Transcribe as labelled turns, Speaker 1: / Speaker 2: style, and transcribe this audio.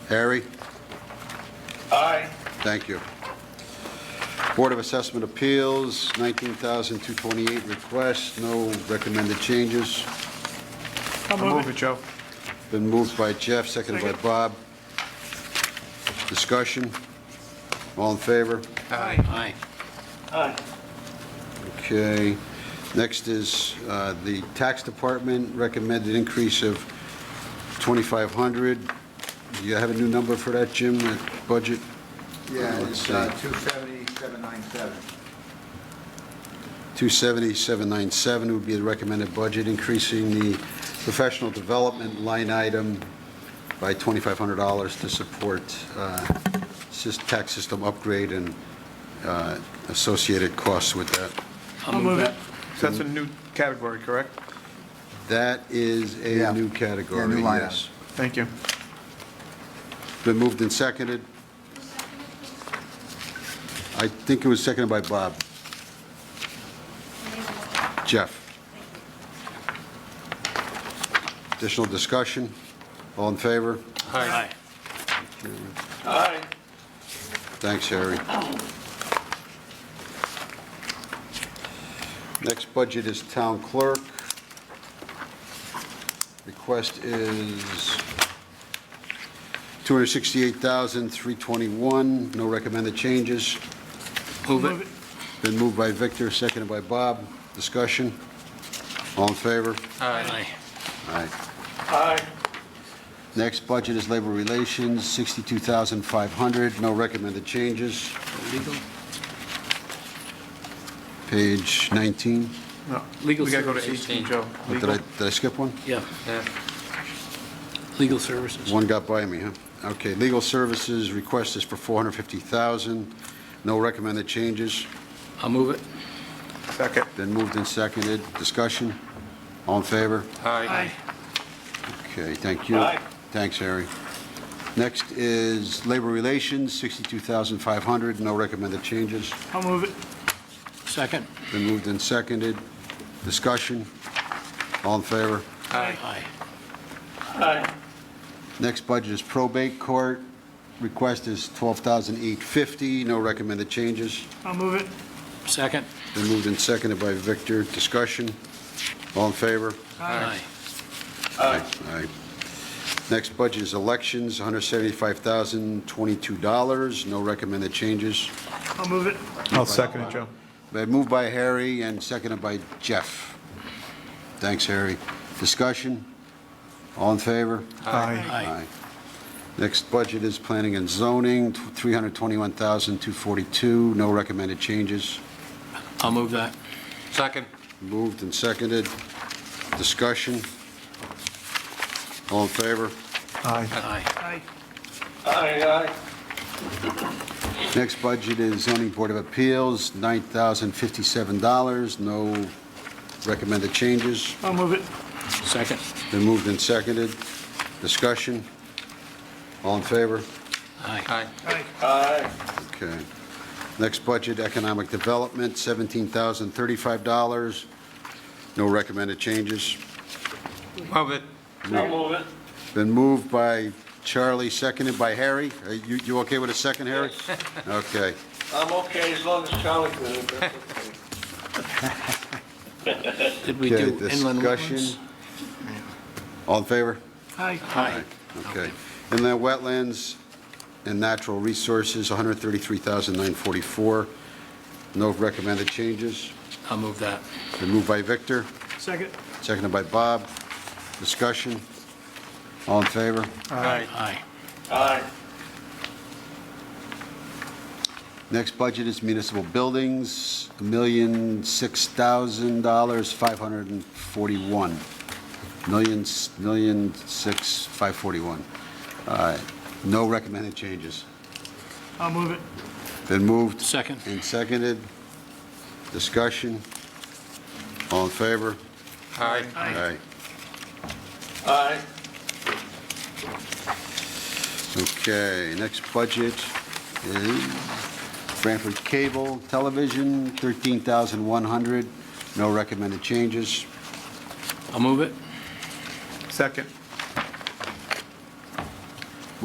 Speaker 1: Harry?
Speaker 2: Aye.
Speaker 1: Thank you. Board of Assessment Appeals, 19,228 requests, no recommended changes.
Speaker 3: I'll move it, Joe.
Speaker 1: Been moved by Jeff, seconded by
Speaker 3: Second.
Speaker 1: Bob. Discussion? All in favor?
Speaker 3: Aye.
Speaker 2: Aye.
Speaker 1: Okay. Next is uh, the Tax Department, recommended increase of 2,500. Do you have a new number for that, Jim, that budget?
Speaker 4: Yeah,
Speaker 1: Let's
Speaker 4: it's
Speaker 1: see.
Speaker 4: uh, 27797.
Speaker 1: 277,997 would be the recommended budget, increasing the professional development line item by $2,500 to support uh, sys- tax system upgrade and uh, associated costs with that.
Speaker 3: I'll move it. So that's a new category, correct?
Speaker 1: That is
Speaker 4: Yeah.
Speaker 1: a new category,
Speaker 4: Yeah, new line
Speaker 1: yes.
Speaker 3: Thank you.
Speaker 1: Been moved and seconded. I think it was seconded by Bob. Jeff. Additional discussion? All in favor?
Speaker 3: Aye.
Speaker 2: Aye.
Speaker 1: Thanks, Harry. Next budget is town clerk. Request is 268321 no recommended changes.
Speaker 3: Move it.
Speaker 1: Been moved by Victor, seconded by Bob. Discussion? All in favor?
Speaker 3: Aye.
Speaker 1: Aye.
Speaker 2: Aye.
Speaker 1: Next budget is labor relations, 62500 no recommended changes.
Speaker 5: Legal,
Speaker 1: Page 19.
Speaker 3: No, we
Speaker 5: Legal
Speaker 3: gotta go to
Speaker 5: services
Speaker 3: 18,
Speaker 5: change.
Speaker 3: Joe.
Speaker 1: What, Did I, did I skip one?
Speaker 5: yeah. Legal services.
Speaker 1: One got by me, huh? Okay, legal services, request is for 450000 no recommended changes.
Speaker 5: I'll move it.
Speaker 3: Second.
Speaker 1: Been moved and seconded. Discussion? All in favor?
Speaker 3: Aye.
Speaker 1: Okay, thank you.
Speaker 2: Aye.
Speaker 1: Thanks, Harry. Next is Labor Relations, 62500 no recommended changes.
Speaker 3: I'll move it.
Speaker 5: Second.
Speaker 1: Been moved and seconded. Discussion? All in favor?
Speaker 5: Aye.
Speaker 2: Aye.
Speaker 1: Next budget is probate court. Request is 12850 no recommended changes.
Speaker 3: I'll move it.
Speaker 5: Second.
Speaker 1: Been moved and seconded by Victor. Discussion? All in favor?
Speaker 5: Aye.
Speaker 2: Aye.
Speaker 1: Aye. Next budget is elections, $175,022. No recommended changes.
Speaker 3: I'll move it. I'll second it, Joe.
Speaker 1: Been Moved by Harry and seconded by Jeff. Thanks, Harry. Discussion? All in favor?
Speaker 3: Aye.
Speaker 5: Aye.
Speaker 1: Next budget is planning and zoning, $321,242. No recommended changes.
Speaker 5: I'll move that.
Speaker 6: Second.
Speaker 1: Moved and seconded. Discussion? All in favor?
Speaker 3: Aye.
Speaker 5: Aye.
Speaker 3: Aye.
Speaker 2: Aye.
Speaker 1: Next budget is zoning board of appeals, $9,057, no recommended changes.
Speaker 3: I'll move it.
Speaker 5: Second.
Speaker 1: Been moved and seconded. Discussion? All in favor?
Speaker 5: Aye.
Speaker 6: Aye.
Speaker 3: Aye.
Speaker 2: Aye.
Speaker 1: Okay. Next budget, economic development, $17,035, no recommended changes.
Speaker 6: Move it.
Speaker 2: I'll move it.
Speaker 1: Been moved by Charlie, seconded by Harry. Are You you okay with a second, Harry? Okay.
Speaker 2: I'm okay as long as Charlie did it, that's okay.
Speaker 5: Did we
Speaker 1: Okay,
Speaker 5: do inland wetlands?
Speaker 1: discussion. All in favor?
Speaker 3: Aye.
Speaker 5: Aye.
Speaker 1: Okay. And then wetlands and natural resources, 133,944. No recommended changes.
Speaker 5: I'll move that.
Speaker 1: Been moved by Victor,
Speaker 3: Second.
Speaker 1: seconded by Bob. Discussion? All in favor?
Speaker 3: Aye.
Speaker 5: Aye.
Speaker 2: Aye.
Speaker 1: Next budget is municipal buildings, $1,006,541. Million, million, six, five forty-one. Uh, No recommended changes.
Speaker 3: I'll move it.
Speaker 1: Been moved.
Speaker 5: Second.
Speaker 1: And seconded. Discussion. All in favor?
Speaker 6: Aye.
Speaker 3: Aye.
Speaker 2: Aye.
Speaker 1: Okay, next budget is Branford Cable Television, 13100 No recommended changes.
Speaker 5: I'll move it.
Speaker 3: Second.